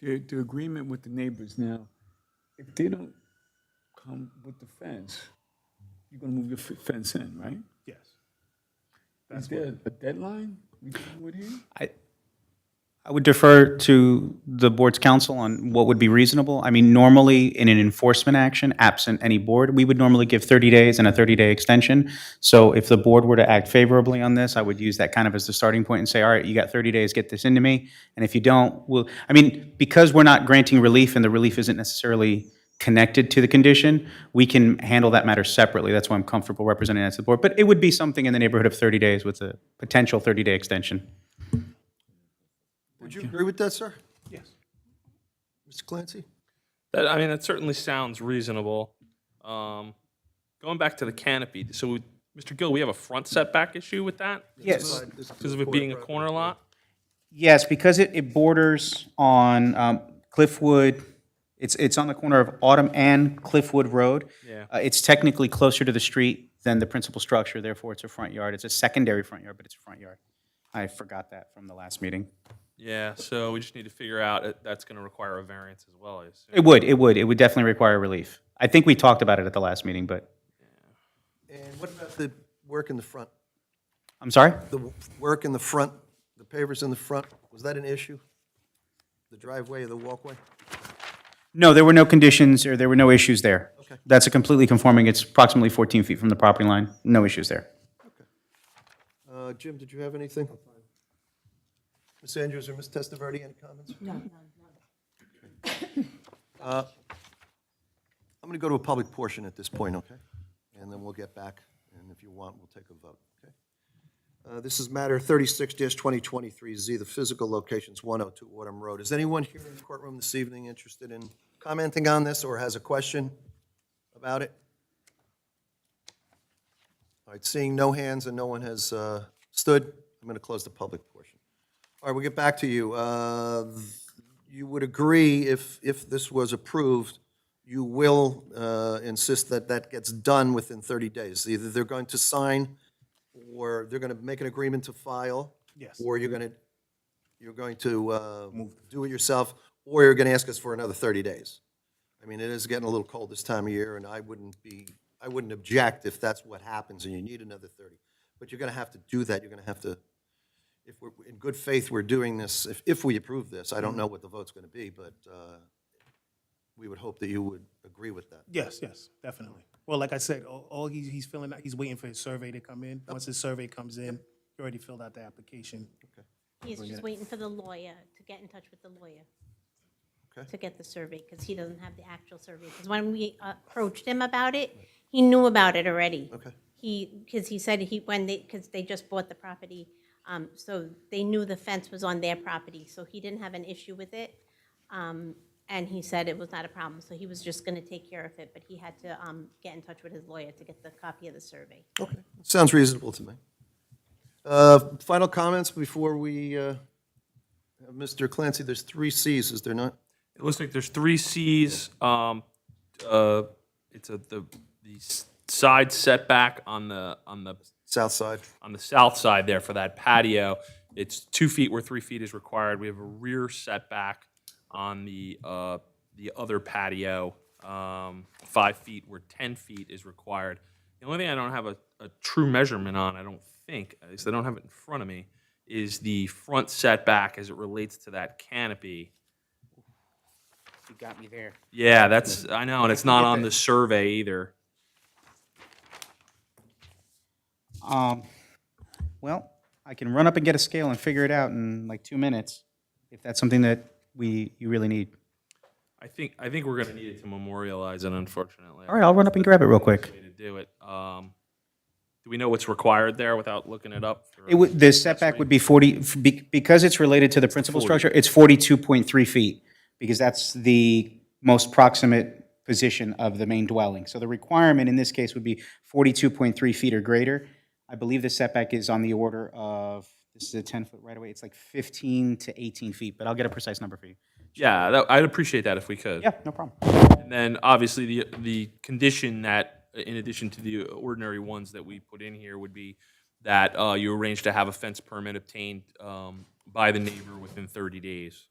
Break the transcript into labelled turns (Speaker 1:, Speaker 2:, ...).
Speaker 1: the, the agreement with the neighbors now, if they don't come with the fence, you're gonna move your f- fence in, right?
Speaker 2: Yes.
Speaker 1: Is there a deadline we come with here?
Speaker 3: I, I would defer to the board's counsel on what would be reasonable. I mean, normally, in an enforcement action, absent any board, we would normally give 30 days and a 30-day extension. So if the board were to act favorably on this, I would use that kind of as the starting point and say, all right, you got 30 days, get this into me. And if you don't, we'll, I mean, because we're not granting relief and the relief isn't necessarily connected to the condition, we can handle that matter separately. That's why I'm comfortable representing that to the board. But it would be something in the neighborhood of 30 days with a potential 30-day extension.
Speaker 4: Would you agree with that, sir?
Speaker 2: Yes.
Speaker 4: Mr. Clancy?
Speaker 5: That, I mean, it certainly sounds reasonable. Um, going back to the canopy, so we- Mr. Gill, we have a front setback issue with that?
Speaker 3: Yes.
Speaker 5: Because of it being a corner lot?
Speaker 3: Yes, because it, it borders on um, Cliffwood, it's, it's on the corner of Autumn and Cliffwood Road.
Speaker 5: Yeah.
Speaker 3: Uh, It's technically closer to the street than the principal structure, therefore it's a front yard. It's a secondary front yard, but it's a front yard. I forgot that from the last meeting.
Speaker 5: Yeah, so we just need to figure out, it- that's going to require a variance as well, I assume.
Speaker 3: It would, it would, it would definitely require relief. I think we talked about it at the last meeting, but,
Speaker 4: And what about the work in the front?
Speaker 3: I'm sorry?
Speaker 4: The w- work in the front, the pavers in the front, was that an issue? The driveway or the walkway?
Speaker 3: No, there were no conditions, or there were no issues there. Okay. That's a completely conforming, it's approximately 14 feet from the property line, no issues there.
Speaker 4: Uh, Jim, did you have anything? Ms. Andrews or Ms. Testaverde, any comments? No, none. I'm going to go to a public portion at this point, okay? And then we'll get back, and if you want, we'll take a vote, okay? Uh, This is matter 36-2023Z, the physical locations 102 Autumn Road. Is anyone here in the courtroom this evening interested in commenting on this or has a question about it? All right, seeing no hands and no one has uh, stood, I'm going to close the public portion. All right, we'll get back to you. Uh, You would agree, if, if this was approved, you will uh, insist that that gets done within 30 days? Either they're going to sign, or they're going to make an agreement to file?
Speaker 2: Yes.
Speaker 4: Or you're going to, you're going to uh, do it yourself, or you're going to ask us for another 30 days? I mean, it is getting a little cold this time of year, and I wouldn't be, I wouldn't object if that's what happens and you need another 30. But you're going to have to do that, you're going to have to, if we're, in good faith, we're doing this, if, if we approve this, I don't know what the vote's going to be, but uh, we would hope that you would agree with that.
Speaker 2: Yes, yes, definitely. Well, like I said, all, all he's, he's filling out, he's waiting for his survey to come in. Once his survey comes in, he already filled out the application.
Speaker 6: He's just waiting for the lawyer, to get in touch with the lawyer.
Speaker 4: Okay.
Speaker 6: To get the survey, because he doesn't have the actual survey, because when we approached him about it, he knew about it already.
Speaker 4: Okay.
Speaker 6: He, because he said he, when they, because they just bought the property, um, so they knew the fence was on their property, so he didn't have an issue with it. Um, and he said it was not a problem, so he was just gonna take care of it, but he had to, um, get in touch with his lawyer to get the copy of the survey.
Speaker 4: Okay, sounds reasonable to me. Uh, Final comments before we, uh, have Mr. Clancy, there's three Cs, is there not?
Speaker 5: It looks like there's three Cs. Um, uh, it's a, the, the s- side setback on the, on the
Speaker 4: South side.
Speaker 5: on the south side there for that patio, it's two feet where three feet is required. We have a rear setback on the, uh, the other patio, um, five feet where 10 feet is required. The only thing I don't have a, a true measurement on, I don't think, at least I don't have it in front of me, is the front setback as it relates to that canopy.
Speaker 3: You got me there.
Speaker 5: Yeah, that's, I know, and it's not on the survey either.
Speaker 3: Um, well, I can run up and get a scale and figure it out in like two minutes, if that's something that we, you really need.
Speaker 5: I think, I think we're going to need it to memorialize it unfortunately.
Speaker 3: All right, I'll run up and grab it real quick.
Speaker 5: way to do it. Um, do we know what's required there without looking it up? for-
Speaker 3: It would, the setback would be 40, f- be- because it's related to the principal structure, it's 42.3 feet, because that's the most proximate position of the main dwelling. So the requirement in this case would be 42.3 feet or greater. I believe the setback is on the order of, this is a 10-foot right away, it's like 15 to 18 feet, but I'll get a precise number for you.
Speaker 5: Yeah, that, I'd appreciate that if we could.
Speaker 3: Yeah, no problem.
Speaker 5: And then obviously the, the condition that, in addition to the ordinary ones that we put in here would be that, uh, you arrange to have a fence permit obtained, um, by the neighbor within thirty days.